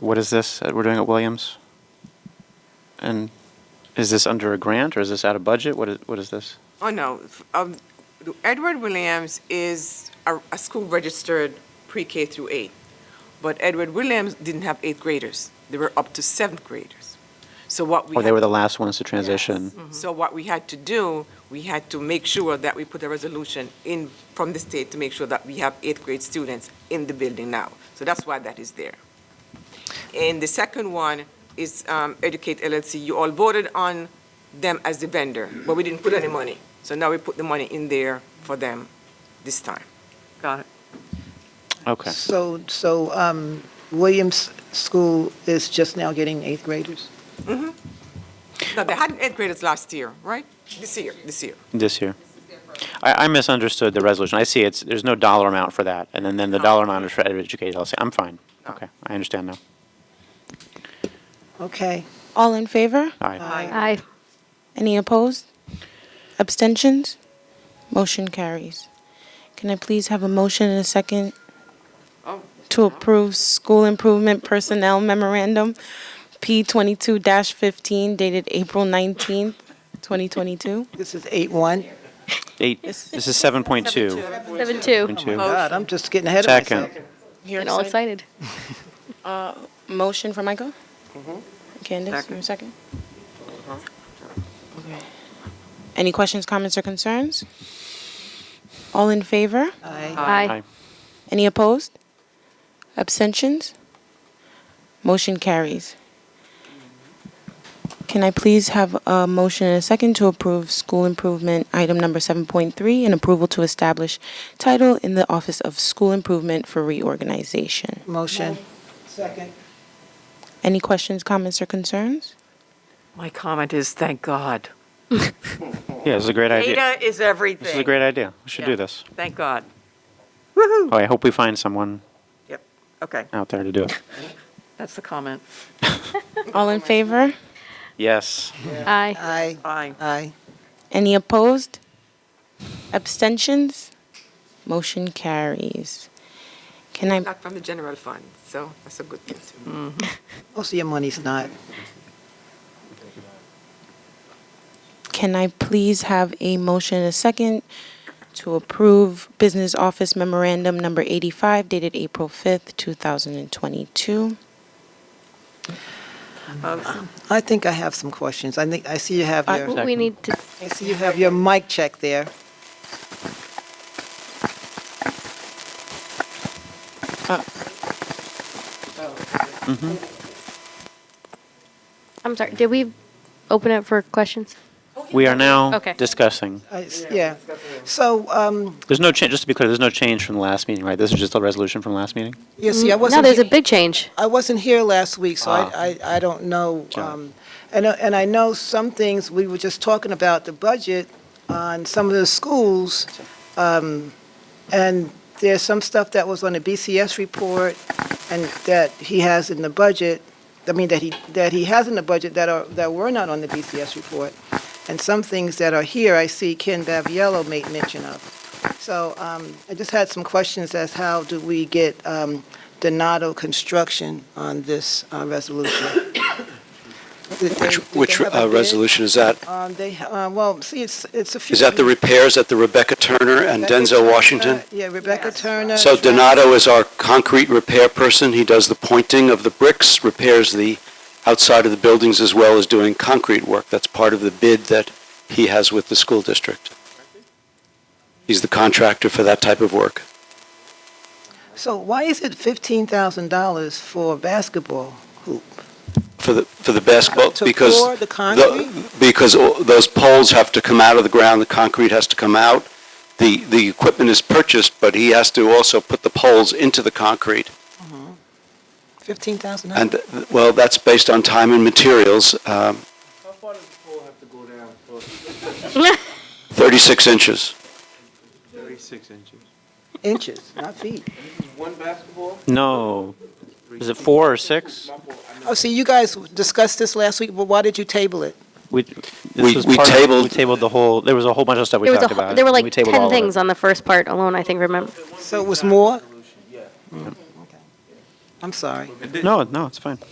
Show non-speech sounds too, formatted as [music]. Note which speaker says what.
Speaker 1: what is this that we're doing at Williams? And is this under a grant or is this out of budget? What is, what is this?
Speaker 2: Oh, no. F- Um, Edward Williams is a, a school registered pre-K through eight. But Edward Williams didn't have eighth graders. They were up to seventh graders. So what we.
Speaker 1: Or Oh, they
Speaker 2: had-
Speaker 1: were the last ones to transition?
Speaker 2: Mm-hmm. So what we had to do, we had to make sure that we put a resolution in from the state to make sure that we have eighth grade students in the building now. So that's why that is there. And the second one is um, Educate LLC. You all voted on them as the vendor, but we didn't put any money. So now we put the money in there for them this time.
Speaker 3: Got it.
Speaker 1: Okay.
Speaker 4: So, so um, Williams School is just now getting eighth graders?
Speaker 2: No, they had eighth graders last year, right? This year, this year.
Speaker 1: This year. I, I misunderstood the resolution. I see it's, there's no dollar amount for that. And then, then the dollar amount is for educated LLC. I'm fine.
Speaker 2: Oh.
Speaker 1: Okay, I understand now.
Speaker 4: Okay.
Speaker 5: All in favor?
Speaker 1: All right.
Speaker 6: Aye.
Speaker 5: Any opposed? Abstentions? Motion carries. Can I please have a motion and a second
Speaker 2: Oh.
Speaker 5: to approve School Improvement Personnel Memorandum P twenty-two fifteen dated April nineteenth, twenty twenty-two?
Speaker 4: This is eight one.
Speaker 1: Eight, this is 7.2.
Speaker 6: Seven two.
Speaker 1: Point two.
Speaker 4: God, I'm just getting ahead of
Speaker 1: Second.
Speaker 4: myself.
Speaker 6: Getting all excited.
Speaker 5: Motion for Michael? Candace, your second? Okay. Any questions, comments, or concerns? All in favor?
Speaker 4: Aye.
Speaker 6: Aye.
Speaker 5: Any opposed? Abstentions? Motion carries. Can I please have a motion and a second to approve school improvement item number 7.3 and approval to establish title in the Office of School Improvement for Reorganization?
Speaker 4: Motion. Second.
Speaker 5: Any questions, comments, or concerns?
Speaker 3: My comment is, thank God.
Speaker 1: Yeah, this is a great idea.
Speaker 3: Data is everything.
Speaker 1: This is a great idea. We should do
Speaker 3: Yeah.
Speaker 1: this.
Speaker 3: Thank God.
Speaker 1: Oh, I hope we find someone
Speaker 3: Yep, okay,
Speaker 1: out there to do it.
Speaker 3: that's the comment.
Speaker 5: All in favor?
Speaker 1: Yes.
Speaker 6: Aye.
Speaker 4: Aye.
Speaker 3: Aye.
Speaker 4: Aye.
Speaker 5: Any opposed? Abstentions? Motion carries. Can I,
Speaker 2: Not from the general fund, so that's a good thing too.
Speaker 4: Most of your money's not.
Speaker 5: can I please have a motion and a second to approve Business Office Memorandum Number 85 dated April 5th, 2022?
Speaker 4: I think I have some questions. I think, I see you have
Speaker 5: I-
Speaker 4: your,
Speaker 6: Uh, We need to,
Speaker 4: I see you have your mic check there.
Speaker 6: I'm sorry, did we open up for questions?
Speaker 1: We are now
Speaker 6: Okay.
Speaker 1: discussing.
Speaker 4: I s- Yeah. So, um,
Speaker 1: There's no change, just to be clear, there's no change from the last meeting, right? This is just a resolution from last meeting?
Speaker 4: yeah, see, I wasn't.
Speaker 6: Mm, No, there's
Speaker 4: here-
Speaker 6: a big change.
Speaker 4: I wasn't here last week, so
Speaker 1: Ah.
Speaker 4: I, I, I don't know.
Speaker 1: Got it.
Speaker 4: um, And, I- and I know some things, we were just talking about the budget on some of the schools. um, And there's some stuff that was on the BCS report and that he has in the budget, I mean, that he, that he has in the budget that are, that were not on the BCS report. And some things that are here, I see Ken Baviello made mention of. So um, I just had some questions as how do we get um, Donato Construction on this uh, resolution? [coughs] Did they-
Speaker 7: Which,
Speaker 4: did they
Speaker 7: which
Speaker 4: have a
Speaker 7: uh,
Speaker 4: bid?
Speaker 7: resolution is that?
Speaker 4: Um, They, uh, well, see, it's, it's a few.
Speaker 7: Is that the repairs at the Rebecca Turner and
Speaker 4: Rebecca
Speaker 7: Denzel
Speaker 4: Turner-
Speaker 7: Washington?
Speaker 4: Yeah, Rebecca Turner.
Speaker 7: So Donato is our concrete repair person. He does the pointing of the bricks, repairs the outside of the buildings as well as doing concrete work. That's part of the bid that he has with the school district. He's the contractor for that type of work.
Speaker 4: So why is it $15,000 for a basketball hoop?
Speaker 7: For the, for the basketball,
Speaker 4: To
Speaker 7: because.
Speaker 4: pour the concrete?
Speaker 7: Because all- those poles have to come out of the ground, the concrete has to come out. The, the equipment is purchased, but he has to also put the poles into the concrete.
Speaker 4: $15,000?
Speaker 7: And, th- th- well, that's based on time and materials, um,
Speaker 8: How far does the pole have to go down for
Speaker 7: 36 inches.
Speaker 8: thirty-six inches?
Speaker 4: Inches, not feet.
Speaker 8: One basketball?
Speaker 1: No. Is it four or six?
Speaker 4: Oh, see, you guys discussed this last week, but why did you table it?
Speaker 1: We,
Speaker 7: We-
Speaker 1: this was
Speaker 7: we
Speaker 1: part of- we
Speaker 7: tabled-
Speaker 1: tabled the whole, there was a whole bunch of stuff we
Speaker 6: There was
Speaker 1: talked
Speaker 6: a, whole-
Speaker 1: about.
Speaker 6: there were
Speaker 1: and we
Speaker 6: like
Speaker 1: tabled all of
Speaker 6: ten
Speaker 1: it.
Speaker 6: things on the first part alone, I think, remember?
Speaker 4: So it was more? Mm. I'm sorry.
Speaker 1: No, no, it's fine.